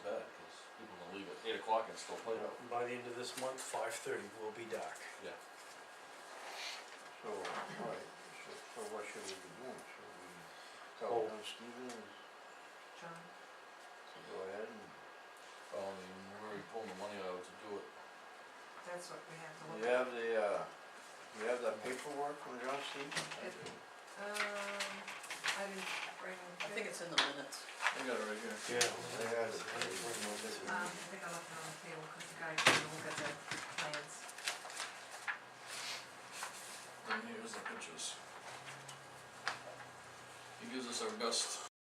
eight o'clock and still play out. By the end of this month, five thirty will be dark. Yeah. So, alright, so, so what should we be doing? Should Oh. we tell them Stevens to go ahead and? Well, I mean, we're already pulling the money out to do it. that's what we have to Do look you at. have the, uh, do you have the paperwork from John Stevens? I It- do. Um, I didn't bring them. I think it's in the minutes. I got it right here. Yeah. They had it. Um, I think I left it on the table, cause the guy can look at the plans. And here's the pictures. He gives us our best